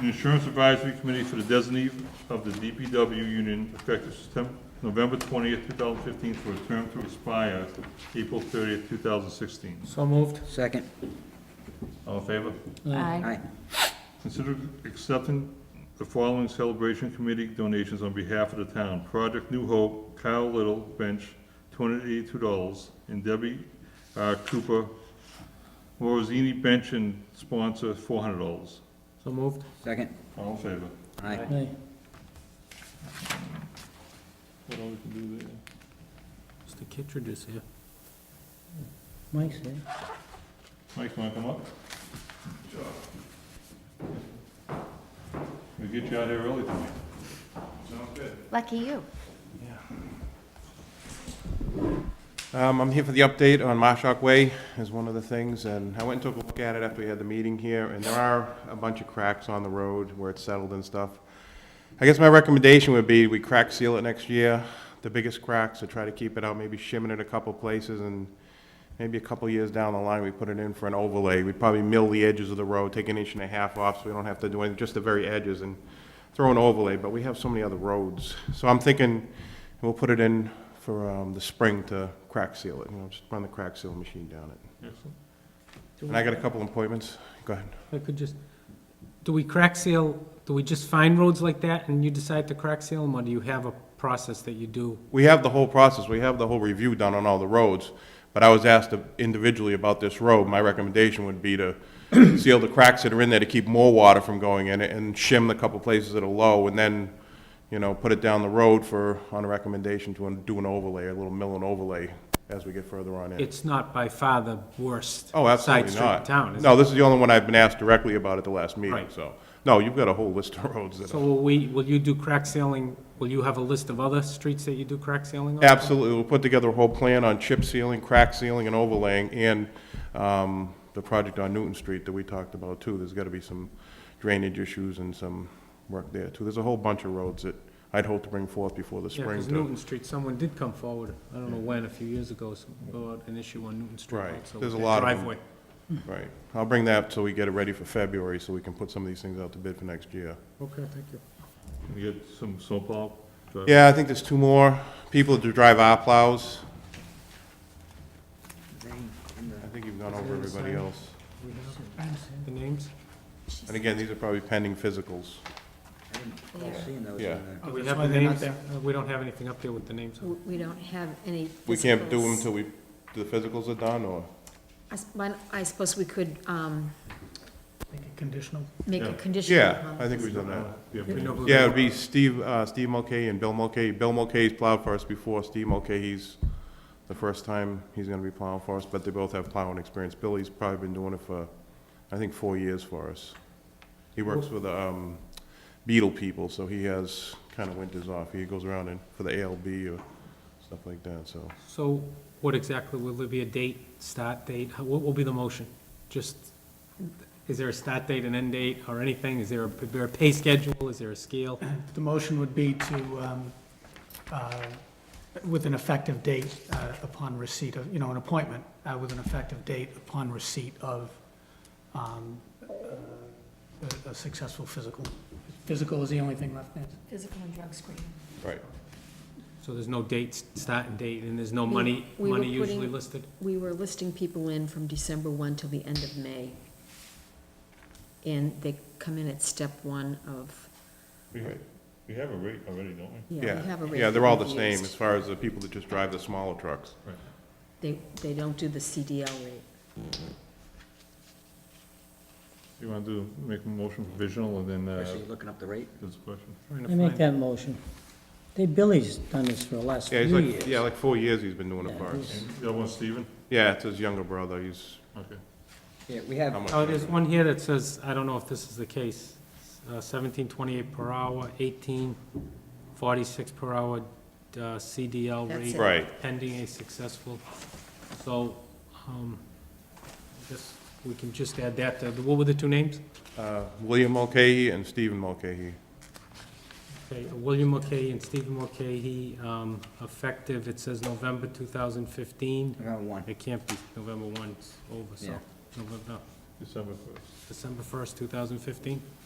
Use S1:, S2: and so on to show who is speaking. S1: the Insurance Advisory Committee for the designee of the DPW union effective September, November twentieth, two thousand fifteen, for a term to expire April thirtieth, two thousand sixteen.
S2: So moved.
S3: Second.
S1: All in favor?
S3: Aye.
S1: Consider accepting the following celebration committee donations on behalf of the town. Project New Hope, Kyle Little Bench, two hundred eighty-two dollars, and Debbie uh, Cooper, Morosini Bench and sponsor, four hundred dollars.
S2: So moved.
S3: Second.
S1: All in favor?
S3: Aye.
S2: Aye.
S1: What all we can do there?
S2: Mr. Kittredge is here.
S3: Mike's here.
S1: Mike, wanna come up? Sure. We get you out here early tonight.
S4: Lucky you.
S5: Um, I'm here for the update on Marshak Way is one of the things, and I went and took a look at it after we had the meeting here, and there are a bunch of cracks on the road where it's settled and stuff. I guess my recommendation would be we crack seal it next year, the biggest cracks, to try to keep it out, maybe shimmin it a couple places, and maybe a couple years down the line, we put it in for an overlay. We'd probably mill the edges of the road, take an inch and a half off, so we don't have to do anything, just the very edges, and throw an overlay, but we have so many other roads. So I'm thinking we'll put it in for um, the spring to crack seal it, you know, just run the crack seal machine down it.
S1: Excellent.
S5: And I got a couple appointments, go ahead.
S2: I could just, do we crack seal, do we just find roads like that and you decide to crack seal them, or do you have a process that you do?
S5: We have the whole process, we have the whole review done on all the roads, but I was asked individually about this road, my recommendation would be to seal the cracks that are in there to keep more water from going in it, and shim the couple places that are low, and then, you know, put it down the road for, on a recommendation to do an overlay, a little mill and overlay as we get further on in.
S2: It's not by far the worst
S5: Oh,
S2: side
S5: absolutely
S2: street in
S5: not.
S2: town, is it?
S5: No, this is the only one I've been asked directly about at the last meeting,
S2: Right.
S5: so. No, you've got a whole list of roads that
S2: So
S5: are,
S2: will we, will you do crack sealing, will you have a list of other streets that you do crack sealing on?
S5: absolutely, we'll put together a whole plan on chip sealing, crack sealing, and overlaying, and, um, the project on Newton Street that we talked about too. There's gotta be some drainage issues and some work there too. There's a whole bunch of roads that I'd hope to bring forth before the
S2: Yeah,
S5: spring
S2: because
S5: too.
S2: Newton Street, someone did come forward, I don't know when, a few years ago, some- about an issue on Newton Street.
S5: Right,
S2: also,
S5: there's a
S2: with
S5: lot of them.
S2: Driveway.
S5: Right, I'll bring that so we get it ready for February, so we can put some of these things out to bid for next year.
S2: Okay, thank you.
S1: Can we get some snowplow? drive?
S5: Yeah, I think there's two more people to drive our plows. I think you've gone over everybody else.
S2: We have The names?
S5: And again, these are probably pending physicals.
S3: I didn't see those
S5: Yeah.
S3: in there.
S2: Do we have the names? Uh, We don't have anything up there with the names. on
S4: W- We don't have any.
S5: We can't do them
S4: physicals.
S5: till we, the physicals are done, or?
S4: I s- mine- I suppose we could um,
S6: Make it conditional.
S4: make a
S1: Yeah.
S4: condition.
S5: Yeah,
S4: on
S5: I think
S4: this.
S5: we've done that.
S1: Yeah,
S2: it. We know who they
S5: Yeah,
S2: are.
S5: it'd be Steve, uh, Steve Mulcahy and Bill Mulcahy. Bill Mulcahy's plowed for us before. Steve Mulcahy's the first time he's gonna be plowing for us, but they both have plowing experience. Billy's probably been doing it for, I think, four years for us. He works with, um, Beetle people, so he has kind of winters off. He goes around and, for the ALB or stuff like that, so.
S2: So what exactly, will there be a date, start date? How- What will be the motion? Just, is there a start date, an end date, or anything? Is there a, is there a pay schedule? Is there a scale?
S6: The motion would be to, um, uh, with an effective date uh, upon receipt of, you know, an appointment, uh, with an effective date upon receipt of um, uh, a a successful physical. Physical is the only thing left, Nancy?
S4: Physical and drug screening.
S5: Right.
S2: So there's no dates, start and date, and there's no money,
S4: We- we were
S2: money usually
S4: putting-
S2: listed?
S4: We were listing people in from December 1 till the end of May. And they come in at step one of,
S1: We have- we have a rate already, don't we?
S4: yeah, we
S5: Yeah,
S4: have a rate.
S5: yeah, they're all the
S4: we've
S5: same
S4: used.
S5: as far as the people that just drive the smaller trucks.
S4: They, they don't do the CDL rate.
S1: You want to do, make a motion provisional and then, uh,
S3: So you're looking up the rate?
S1: there's a question.
S2: Trying
S7: I
S2: to
S7: make
S2: find,
S7: that motion. They, Billy's done this for the last few
S5: Yeah, he's
S7: years.
S5: like, yeah, like four years he's been doing it for us.
S1: And The other one's Stephen?
S5: Yeah, it's his younger brother, he's,
S1: Okay.
S3: Yeah, we
S5: how
S3: have,
S5: much?
S2: oh, there's one here that says, I don't know if this is the case, uh, seventeen twenty-eight per hour, eighteen forty-six per hour, uh, CDL
S4: That's
S2: rate.
S4: it.
S5: Right,
S2: pending a successful, so, um, I guess we can just add that, to- what were the two names?
S5: uh, William Mulcahy and Stephen Mulcahy.
S2: Okay, uh, William Mulcahy and Stephen Mulcahy, um, effective, it says November two thousand fifteen,
S3: we have one.
S2: it can't be November one's over, so,
S3: Yeah.
S2: November,
S1: December first.
S2: December first, two thousand fifteen?